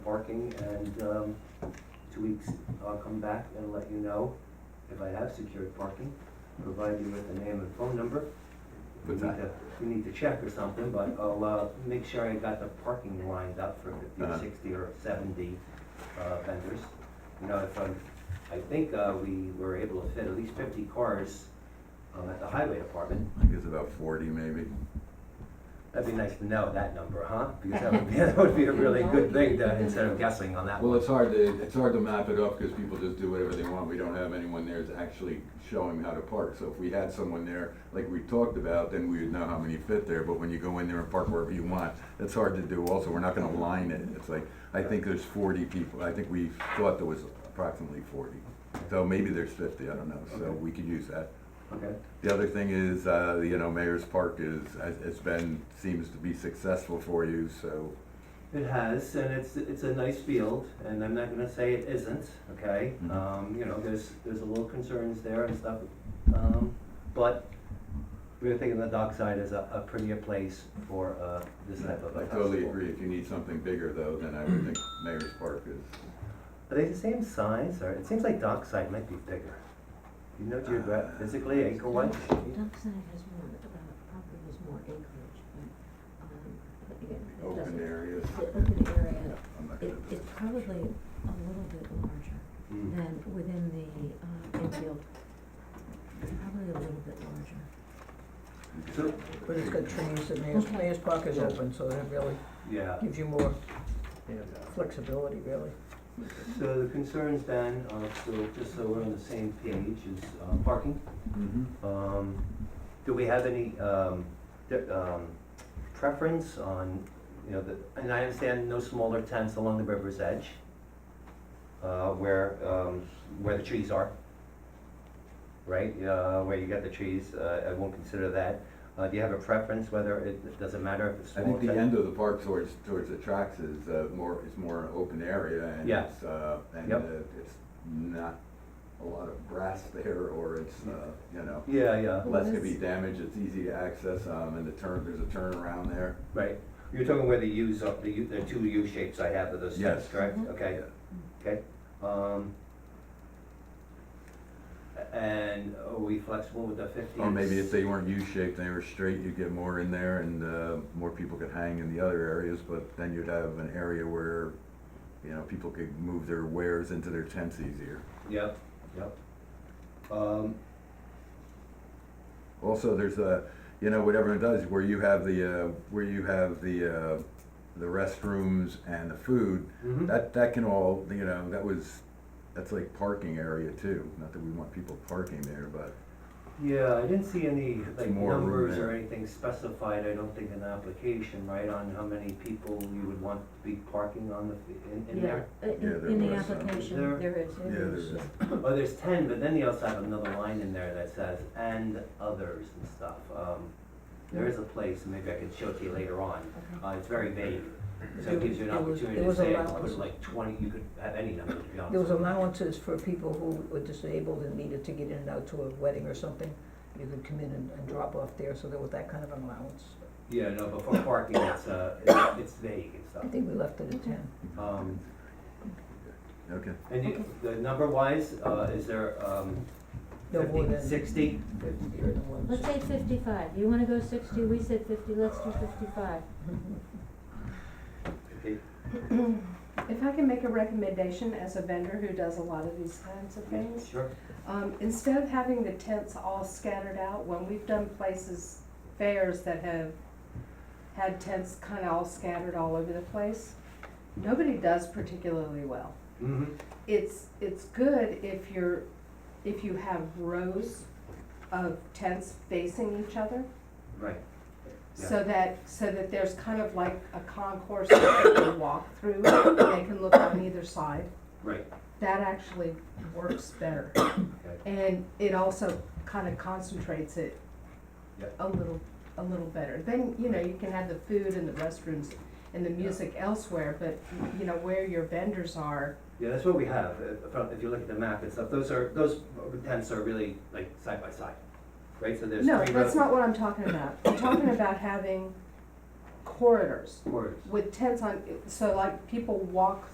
parking, and, um, two weeks, I'll come back and let you know if I have secured parking, provide you with the name and phone number. We What's need that? to- We need to check or something, but I'll, uh, make sure I got the parking lined up for fifty, Uh-huh. or sixty, or seventy, uh, vendors. You know, if I'm, I think, uh, we were able to fit at least fifty cars, um, at the highway department. I think it's about forty maybe. That'd be nice to know that number, huh? Because that would be, that would be a really good thing to, instead of guessing on that Well, one. it's hard to, it's hard to map it up because people just do whatever they want. We don't have anyone there that's actually showing how to park. So if we had someone there, like we talked about, then we would know how many fit there. But when you go in there and park wherever you want, that's hard to do also. We're not gonna line it. It's like, I think there's forty people. I think we thought there was approximately forty. So maybe there's fifty, I don't know. So Okay. we could use that. Okay, The other thing is, uh, you know, Mayor's Park is, has, has been, seems to be successful for you, so. it has, and it's, it's a nice field, and I'm not gonna say it isn't, okay? Mhm. Um, you know, there's, there's a little concerns there and stuff, um, but we're thinking the dockside is a, a prettier place for, uh, this type of a I festival. totally agree. If you need something bigger though, then I would think Mayor's Park is. Are they the same size, or, it seems like dockside might be bigger. You Uh, know geographically, physically, acre-wise? Dockside has more, uh, probably has more acreage, but, um, but again, it doesn't. Open areas. The open area, I'm not gonna it, do it's probably a little bit larger Mm. than within the, uh, infield. It's probably a little bit larger. So, But it's got trees, and Mayor's, Mayor's Park is Yeah. open, so that really yeah. gives you more flexibility, really. So the concerns then, uh, so just so we're on the same page, is uh, parking. Mhm. Um, Do we have any um, di- um, preference on, you know, the- and I understand no smaller tents along the river's edge uh, where, um, where the trees are, right? Uh, Where you got the trees, uh, I won't consider that. Uh, Do you have a preference whether it, does not matter if it's I small? think the tent? end of the park towards, towards the tracks is, uh, more, is more open area and Yeah. it's, uh, and uh, Yep. it's not a lot of grass there or it's, uh, you know, Yeah, yeah, less can be Well, damaged. It's easy to access, um, and the turn, there's a turnaround there. right. You're talking where the U's are, the U, the two U shapes I have of those tents, Yes. correct? Mhm. Okay. Okay, um, a- and are we flexible with the fifteen? Or maybe if they weren't U-shaped, they were straight, you'd get more in there and, uh, more people could hang in the other areas, but then you'd have an area where, you know, people could move their wares into their tents easier. Yep, yep. Um, Also, there's a, you know, what everyone does, where you have the, uh, where you have the, uh, the restrooms and the food, mhm. that, that can all, you know, that was, that's like parking area too, not that we want people parking there, but yeah, I didn't see any, like, more room numbers or there. anything specified, I don't think, in the application, right, on how many people you would want to be parking on the, f- in, in there? uh, Yeah, there In, in the was some. There- application, there is, yeah, there is, there's, yeah. Oh, there's ten, but then you also have another line in there that says, and others and stuff, um, there Mm-hmm. is a place, maybe I can show it to you later on, Okay. Uh, it's very vague, so it gives you an There was- opportunity there to was say, I could allowance. put like twenty, you could have any number, to be honest. There was with you. allowances for people who were disabled and needed to get in and out to a wedding or something. You could come in and, and drop off there, so there was that kind of an allowance. Yeah, no, but for parking, it's, uh, it's- it's vague and I stuff. think we left it at ten. Um, okay. and you, the number wise, uh, is there, um, No more fifty, than. sixty? Fifty or no more than Let's say fifty-five, you wanna go sixty, we said fifty, let's do fifty-five. Mm-hmm. Okay. If I can make a recommendation as a vendor who does a lot of these kinds of things, Sure, um, instead of having the tents all scattered out, when we've done places, fairs that have had tents kind of all scattered all over the place, nobody does particularly well. mm-hmm, It's, it's good if you're, if you have rows of tents facing each other, right, so that, so that there's kind of like a concourse that they can walk through, they can look on either side. right, that actually works better. okay, And it also kind of concentrates it Yep. a little, a little better. Then, you know, you can have the food and the restrooms and the music elsewhere, but, you know, where your vendors are, yeah, that's what we have, uh, from, if you look at the map and stuff, those are, those tents are really like side by side, right, so there's three no, rows. that's not what I'm talking about. I'm talking about having corridors Corridors, with tents on, so like people walk